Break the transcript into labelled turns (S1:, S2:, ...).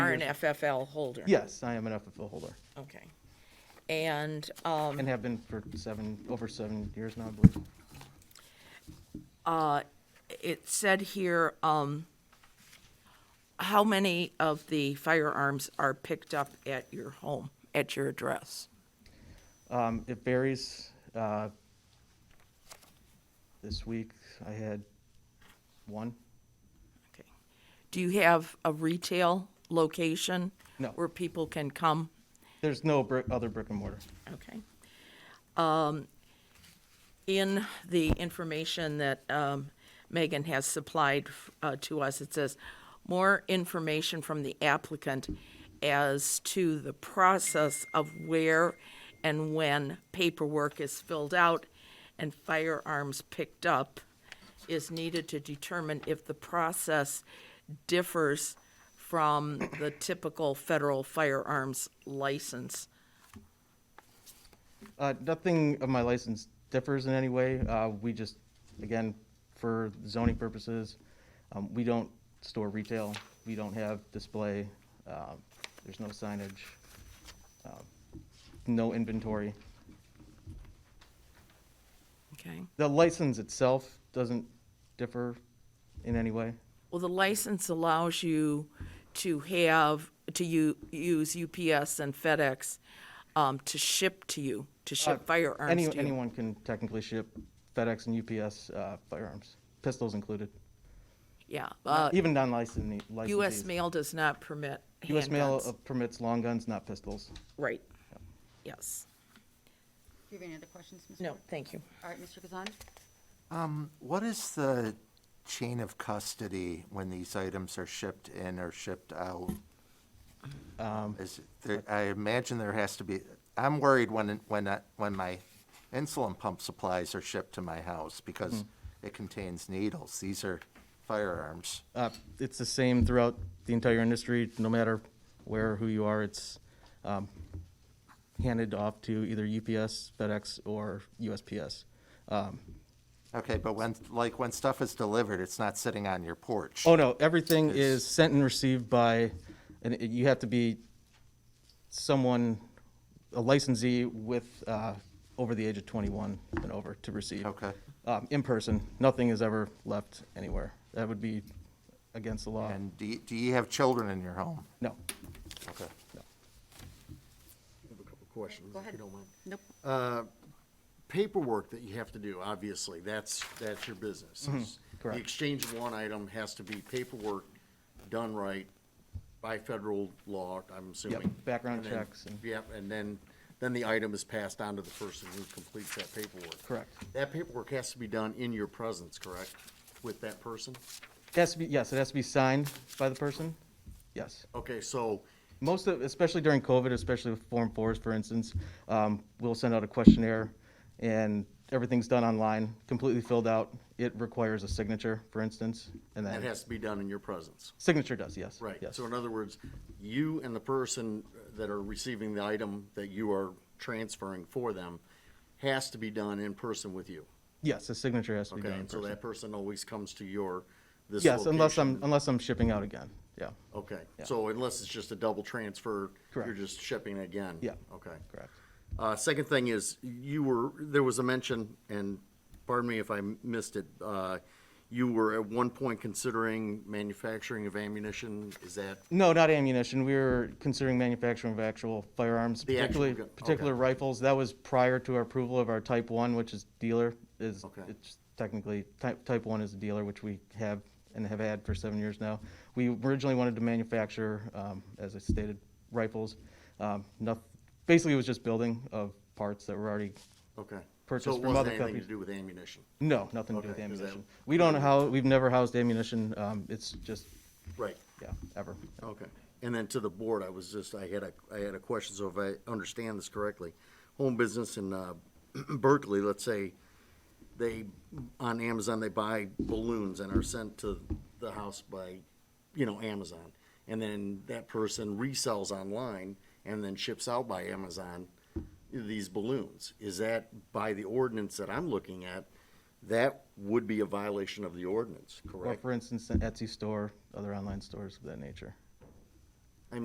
S1: are an
S2: years.
S1: FFL holder?
S2: Yes, I am an FFL holder
S1: Okay. And, um,
S2: and have been for seven, over seven years now, I believe.
S1: uh, it said here, um, how many of the firearms are picked up at your home, at your address?
S2: Um, it varies. Uh, this week I had one.
S1: Okay. Do you have a retail location?
S2: No.
S1: Where people can come?
S2: There's no brick, other brick and mortar.
S1: Okay. Um, in the information that, um, Megan has supplied, uh, to us, it says more information from the applicant as to the process of where and when paperwork is filled out and firearms picked up is needed to determine if the process differs from the typical federal firearms license.
S2: Uh, nothing of my license differs in any way. Uh, we just, again, for zoning purposes, um, we don't store retail. We don't have display. Uh, there's no signage. um, no inventory.
S1: Okay.
S2: The license itself doesn't differ in any way.
S1: Well, the license allows you to have, to u- use UPS and FedEx um, to ship to you, to ship
S2: Any,
S1: firearms to you.
S2: Uh, anyone can technically ship FedEx and UPS uh, firearms, pistols included,
S1: Yeah, uh,
S2: even non-licensed.
S1: US mail does not permit
S2: U.S. mail
S1: handguns.
S2: uh, permits long guns, not pistols.
S1: Right, yes.
S3: Do you have any other questions, Mr.
S1: No, thank you.
S3: All right, Mr. Kazan?
S4: What is the chain of custody when these items are shipped in or shipped out? Is it- there- I imagine there has to be, I'm worried when, when, I- when my insulin pump supplies are shipped to my house because it contains needles. These are firearms.
S2: Uh, It's the same throughout the entire industry, no matter where, or who you are, it's um, handed off to either UPS, FedEx, or USPS. Um,
S4: Okay, but when, like, when stuff is delivered, it's not sitting on your porch.
S2: Oh, no, everything is sent and received by, and it- you have to be someone, a licensee with, uh, over the age of 21 and over to receive.
S4: Okay.
S2: Um, In person, nothing is ever left anywhere. That would be against the law.
S4: And do you, do you have children in your home?
S2: No.
S4: Okay.
S5: I have a couple of questions,
S3: Go
S5: if
S3: ahead.
S5: you don't mind.
S3: Nope.
S5: Paperwork that you have to do, obviously, that's, that's your business. It's-
S2: Mm-hmm. correct.
S5: The exchange of one item has to be paperwork done right by federal law, I'm assuming.
S2: background
S5: And then-
S2: checks and-
S5: Yep, and then, then the item is passed on to the person who completes that paperwork.
S2: Correct.
S5: That paperwork has to be done in your presence, correct, with that person?
S2: It has to be, yes, it has to be signed by the person. Yes.
S5: Okay, so,
S2: Most of, especially during COVID, especially with Form 4s, for instance, um, we'll send out a questionnaire and everything's done online, completely filled out. It requires a signature, for instance, and
S5: that
S2: then,
S5: has to be done in your presence.
S2: signature does, yes.
S5: Right,
S2: yes.
S5: so in other words, you and the person that are receiving the item that you are transferring for them has to be done in person with you,
S2: Yes, the signature has to be
S5: okay?
S2: done in
S5: And so
S2: person.
S5: that person always comes to your, this
S2: Yes, unless I'm,
S5: location.
S2: unless I'm shipping out again, yeah,
S5: Okay, so unless it's just a double transfer, you're
S2: Correct.
S5: just shipping again?
S2: Yeah.
S5: Okay.
S2: correct.
S5: Uh, second thing is, you were, there was a mention, and pardon me if I missed it, uh, you were at one point considering manufacturing of ammunition, is that
S2: No, not ammunition. We were considering manufacturing of actual firearms,
S5: The actual
S2: particularly,
S5: gun, okay.
S2: particular rifles. That was prior to our approval of our Type 1, which is dealer, is,
S5: Okay.
S2: it's technically, Type, Type 1 is a dealer, which we have and have had for seven years now. We originally wanted to manufacture, um, as I stated, rifles. Um, noth, basically, it was just building of parts that were already,
S5: Okay.
S2: purchased
S5: So it
S2: from
S5: wasn't
S2: other
S5: anything
S2: companies.
S5: to do with ammunition?
S2: no, nothing to do with
S5: Okay, is that-
S2: ammunition. We don't know how, we've never housed ammunition. Um, it's just,
S5: Right.
S2: yeah, ever.
S5: Okay. And then to the board, I was just, I had a, I had a question, so if I understand this correctly, home business in uh, Berkeley, let's say, they, on Amazon, they buy balloons and are sent to the house by, you know, Amazon. And then that person resells online and then ships out by Amazon these balloons. Is that by the ordinance that I'm looking at, that would be a violation of the ordinance,
S2: Or
S5: correct?
S2: for instance, an Etsy store, other online stores of that nature.